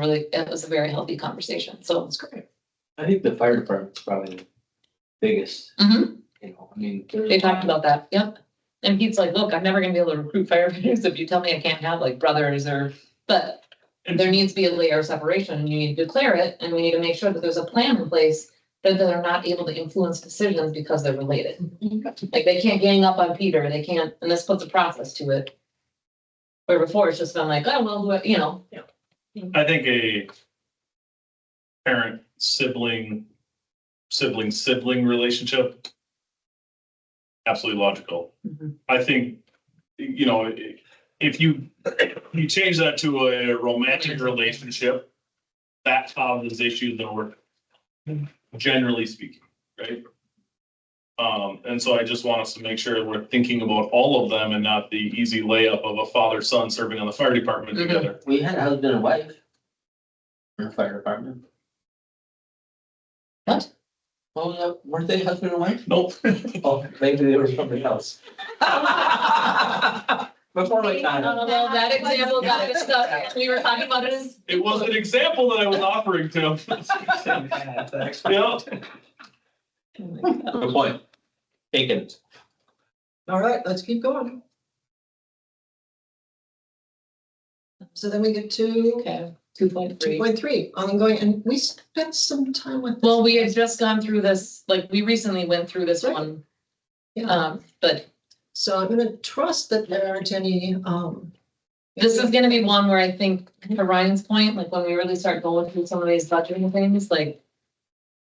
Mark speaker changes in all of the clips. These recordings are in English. Speaker 1: really, it was a very healthy conversation, so it's great.
Speaker 2: I think the fire department's probably the biggest,
Speaker 1: Mhm.
Speaker 2: you know, I mean.
Speaker 1: They talked about that, yep. And Pete's like, look, I'm never gonna be able to recruit firefighters if you tell me I can't have like brothers or, but there needs to be a layer of separation, you need to declare it, and we need to make sure that there's a plan in place that they're not able to influence decisions because they're related. Like they can't gang up on Peter, they can't, and this puts a process to it. Where before it's just been like, oh, well, what- you know,
Speaker 3: I think a parent sibling, sibling sibling relationship. Absolutely logical.
Speaker 1: Mhm.
Speaker 3: I think, you know, i- if you, you change that to a romantic relationship, that causes issues that work, generally speaking, right? Um, and so I just want us to make sure we're thinking about all of them and not the easy layup of a father, son serving on the fire department
Speaker 1: Mhm.
Speaker 3: together.
Speaker 2: We had a husband and wife. In the fire department.
Speaker 1: What?
Speaker 2: Well, uh, weren't they husband and wife?
Speaker 3: Nope.
Speaker 2: Oh, maybe they were somebody else. Before my time.
Speaker 1: Oh, well, that example got us stuck. We were talking about it as.
Speaker 3: It was an example that I was offering to him. Yeah,
Speaker 2: Good point. Taken. All right, let's keep going.
Speaker 4: So then we get to
Speaker 1: Okay, two point
Speaker 4: two
Speaker 1: three.
Speaker 4: point three, ongoing, and we spent some time with. this.
Speaker 1: Well, we had just gone through this, like, we recently went through this
Speaker 4: Right.
Speaker 1: one,
Speaker 4: Yeah,
Speaker 1: um, but
Speaker 4: so I'm gonna trust that there aren't any, um.
Speaker 1: this is gonna be one where I think, to Ryan's point, like, when we really start going through some of these budgeting things, like,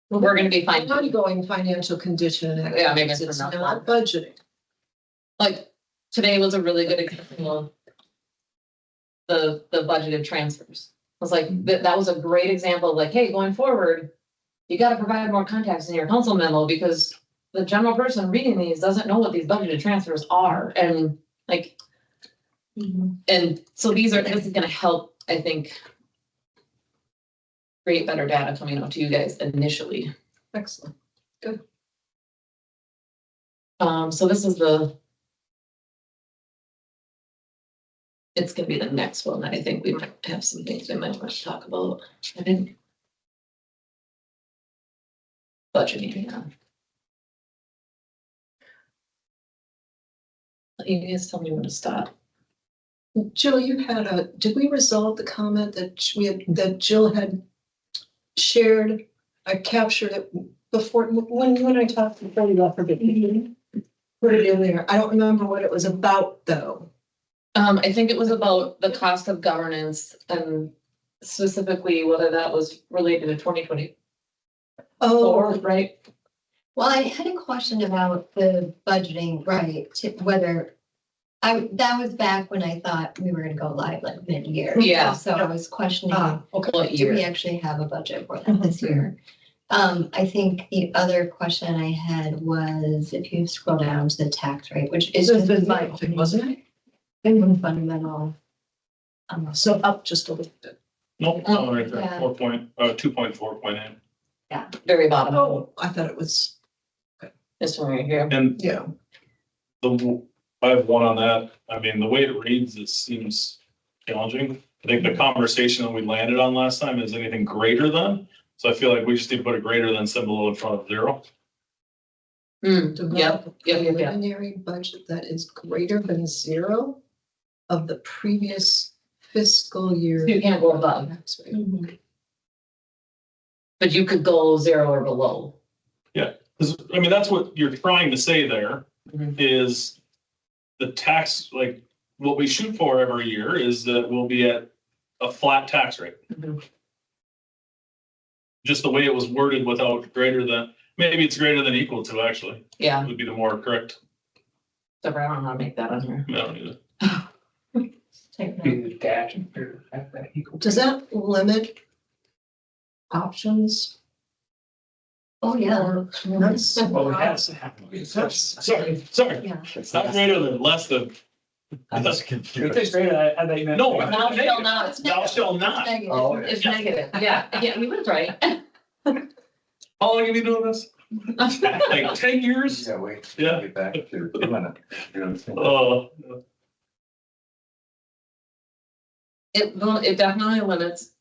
Speaker 1: we're gonna be fine.
Speaker 4: Ongoing financial condition. and
Speaker 1: Yeah, maybe it's
Speaker 4: It's
Speaker 1: not
Speaker 4: not budgeting.
Speaker 1: Like, today was a really good example of the, the budgeted transfers. It was like, that, that was a great example, of like, hey, going forward, you gotta provide more context in your council memo, because the general person reading these doesn't know what these budgeted transfers are, and like, And so these are, this is gonna help, I think. Create better data coming out to you guys initially.
Speaker 4: Excellent.
Speaker 1: Um, so this is the. It's gonna be the next one that I think we might have some things we might want to talk about. I didn't. Budgeting, yeah. You guys tell me when to stop.
Speaker 4: Jill, you had a, did we resolve the comment that sh- we had, that Jill had shared, I captured it before, when, when I talked to Freddie left for vacation? Put it in there. I don't remember what it was about, though.
Speaker 1: Um, I think it was about the cost of governance and specifically whether that was related to twenty twenty-four,
Speaker 4: Oh,
Speaker 1: right?
Speaker 5: Well, I had a question about the budgeting, right, to whether, I, that was back when I thought we were gonna go live like mid-year.
Speaker 1: Yeah.
Speaker 5: So I was questioning,
Speaker 4: ah, okay.
Speaker 1: What
Speaker 5: do we
Speaker 1: year?
Speaker 5: actually have a budget for that this year? Um, I think the other question I had was if you scroll down to the tax rate, which is
Speaker 4: This
Speaker 5: just
Speaker 4: is
Speaker 5: my,
Speaker 4: my thing, wasn't it?
Speaker 5: one fundamental. um,
Speaker 4: So up just a little bit.
Speaker 3: nope,
Speaker 1: Oh,
Speaker 3: no, right there,
Speaker 5: yeah.
Speaker 3: four point, uh, two point four point eight.
Speaker 1: Very bottom,
Speaker 4: Oh, I thought it was,
Speaker 1: this one right here.
Speaker 3: And
Speaker 4: yeah,
Speaker 3: the, w- I have one on that. I mean, the way it reads, it seems challenging. I think the conversation that we landed on last time is anything greater than. So I feel like we just need to put a greater than symbol in front of zero.
Speaker 1: Hmm,
Speaker 4: develop a
Speaker 1: yeah, yeah, yeah.
Speaker 4: preliminary budget that is greater than zero of the previous fiscal year.
Speaker 1: You can't go above,
Speaker 4: That's right.
Speaker 5: mhm.
Speaker 1: but you could go zero or below.
Speaker 3: 'Cause, I mean, that's what you're trying to say there
Speaker 1: Mhm.
Speaker 3: is the tax, like, what we shoot for every year is that we'll be at a flat tax rate.
Speaker 1: Mhm.
Speaker 3: Just the way it was worded without greater than, maybe it's greater than equal to actually,
Speaker 1: Yeah,
Speaker 3: would be the more correct.
Speaker 1: so I don't know how to make that on here.
Speaker 3: I don't know.
Speaker 5: Take that.
Speaker 2: Huge dash. and period, that- that equal.
Speaker 4: Does that limit options?
Speaker 5: Oh, yeah,
Speaker 4: or- That's-
Speaker 2: Well, it has to happen. It's-
Speaker 3: Sorry, sorry,
Speaker 5: yeah.
Speaker 3: it's not greater than, less than,
Speaker 6: I was
Speaker 2: If
Speaker 6: confused.
Speaker 2: it's greater, I, I thought you meant.
Speaker 3: no.
Speaker 1: Thou shalt not.
Speaker 3: it's negative. Thou shall not.
Speaker 5: Negative.
Speaker 6: Oh, okay.
Speaker 1: It's negative, yeah, yeah, he was right.
Speaker 3: How long have you been doing this? Like ten years?
Speaker 6: Yeah, wait.
Speaker 3: Yeah.
Speaker 6: Get back to, a minute. You're gonna think
Speaker 3: Uh,
Speaker 1: It, will- it definitely limits